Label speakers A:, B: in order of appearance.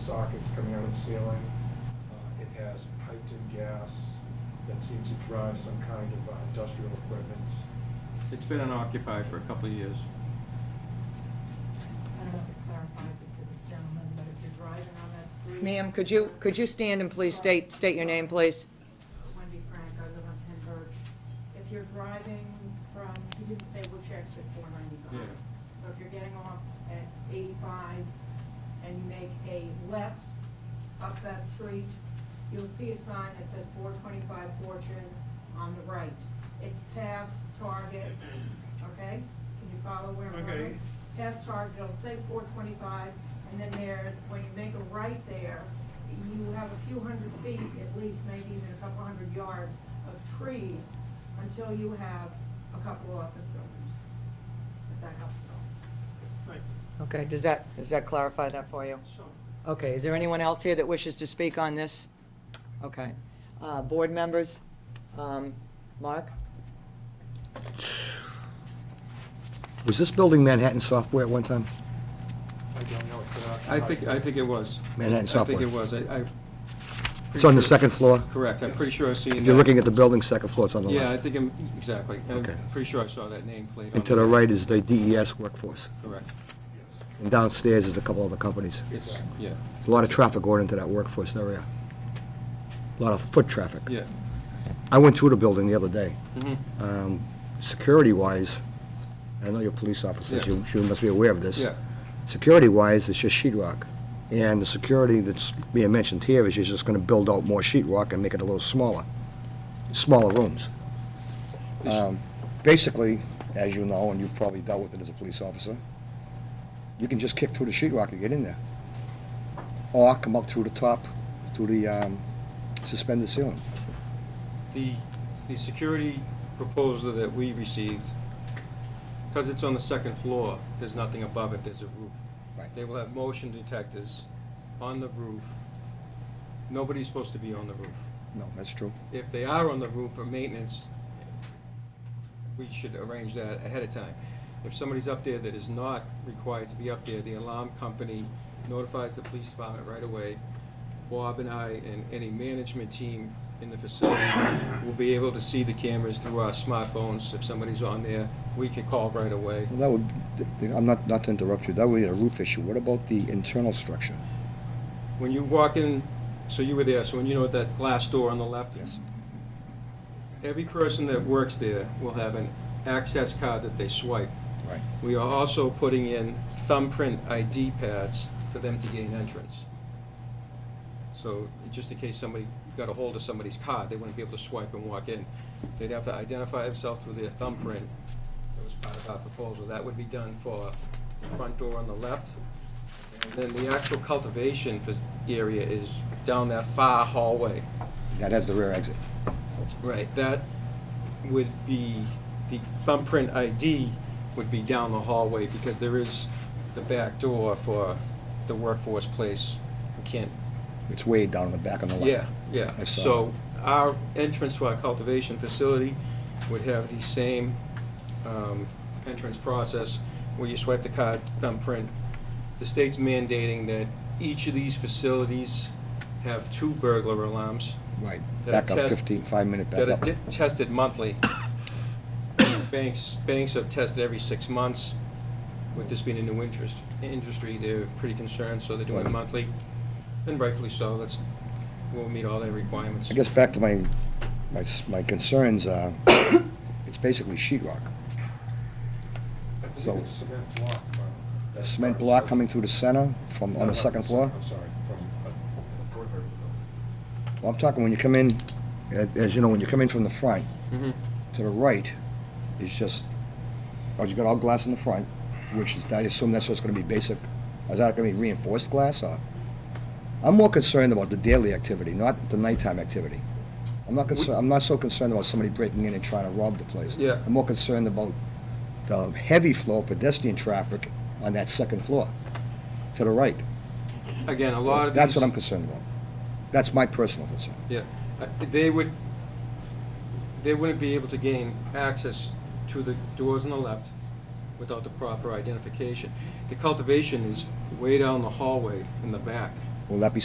A: sockets coming out of the ceiling. Uh, It has piped-in gas that seems to drive some kind of uh, industrial equipment.
B: It's been unoccupied for a couple of years.
C: I don't know if it clarifies it for this gentleman, but if you're driving on that street.
D: Ma'am, could you, could you stand and please state, state your name, please?
C: Wendy Frank, I live on Pembroke. If you're driving from, he didn't say which exit, four ninety-five.
B: Yeah.
C: So if you're getting off at eighty-five and you make a left up that street, you'll see a sign that says four twenty-five Fortune on the right. It's past Target, okay? Can you follow where I'm going?
A: Okay.
C: Past Target, it'll say four twenty-five, and then there's, when you make a right there, you have a few hundred feet, at least, maybe even a couple hundred yards of trees until you have a couple office buildings. If that helps at all.
D: Okay, does that, does that clarify that for you?
C: Sure.
D: Okay, is there anyone else here that wishes to speak on this? Okay. Uh, Board members? Um, Mark?
E: Was this building Manhattan Software at one time?
A: I don't know, it's been
B: I
A: occupied.
B: think, I think it was.
E: Manhattan
B: I
E: Software.
B: think it was, I, I.
E: It's on
B: pretty
E: the
B: sure-
E: second floor?
B: Correct, I'm pretty sure I've seen that.
E: If you're looking at the building, second floor, it's on the
B: Yeah, I
E: left.
B: think, I'm exactly. I'm
E: Okay.
B: pretty sure I saw that nameplate on.
E: And to the right is the DES workforce.
B: Correct.
A: Yes.
E: And downstairs is a couple other companies.
B: It's, yeah,
E: There's a lot of traffic going into that workforce area. A lot of foot traffic.
B: yeah.
E: I went through the building the other day.
B: Mhm.
E: Um, Security-wise, I know you're police officers,
B: Yeah.
E: you you must be aware of this.
B: Yeah.
E: Security-wise, it's just sheet rock. And the security that's being mentioned here is you're just going to build out more sheet rock and make it a little smaller, smaller rooms. Um, Basically, as you know, and you've probably dealt with it as a police officer, you can just kick through the sheet rock and get in there. Or come up through the top, through the um, suspended ceiling.
B: The, the security proposal that we received, because it's on the second floor, there's nothing above it, there's a roof.
E: Right.
B: They will have motion detectors on the roof. Nobody's supposed to be on the roof.
E: No, that's true.
B: if they are on the roof for maintenance, we should arrange that ahead of time. If somebody's up there that is not required to be up there, the alarm company notifies the police department right away. Bob and I and any management team in the facility will be able to see the cameras through our smartphones. If somebody's on there, we can call right away.
E: Well, that would, th- th- I'm not, not to interrupt you, that would be a roof issue. What about the internal structure?
B: When you walk in, so you were there, so when you know that glass door on the left?
E: Yes.
B: Every person that works there will have an access card that they swipe.
E: Right.
B: We are also putting in thumbprint ID pads for them to gain entrance. So just in case somebody got a hold of somebody's card, they wouldn't be able to swipe and walk in. They'd have to identify themselves through their thumbprint. That was part of our proposal. That would be done for the front door on the left. And then the actual cultivation fac- area is down that far hallway.
E: That has the rear exit.
B: Right, that would be, the thumbprint ID would be down the hallway, because there is the back door for the workforce place. We can't,
E: It's way down in the back on the left.
B: yeah, yeah.
E: Oh, I saw
B: So
E: that.
B: our entrance to our cultivation facility would have the same um, entrance process, where you swipe the card, thumbprint. The state's mandating that each of these facilities have two burglar alarms.
E: Right,
B: that are
E: back up
B: test-
E: 15, five-minute back
B: that are
E: up.
B: di- tested monthly. Banks, banks are tested every six months. With this being a new interest, industry, they're pretty concerned, so they're doing it
E: Right.
B: monthly, and rightfully so. That's, we'll meet all their requirements.
E: I guess back to my, my, s- my concerns, uh, it's basically sheet rock.
A: I believe
E: So-
A: it's cement block. uh, that's
E: A
A: part
E: Cement
A: of
E: block
A: the-
E: coming through the center from,
A: No,
E: on
A: no,
E: the second
A: from
E: floor?
A: I'm sorry, from uh, the perimeter of the building.
E: Well, I'm talking when you come in, uh, as you know, when you come in from the front,
B: Mhm.
E: to the right is just, oh, you got all glass in the front, which is, I assume that's what's gonna be basic, is that gonna be reinforced glass or? I'm more concerned about the daily activity, not the nighttime activity. I'm not concerned, I'm not so concerned about somebody breaking in and trying to rob the place.
B: Yeah.
E: I'm more concerned about the heavy flow of pedestrian traffic on that second floor, to the right.
B: Again, a lot of these.
E: That's what I'm concerned about. That's my personal concern.
B: Yeah, Uh, they would, they wouldn't be able to gain access to the doors on the left without the proper identification. The cultivation is way down the hallway in the back.
E: Will that be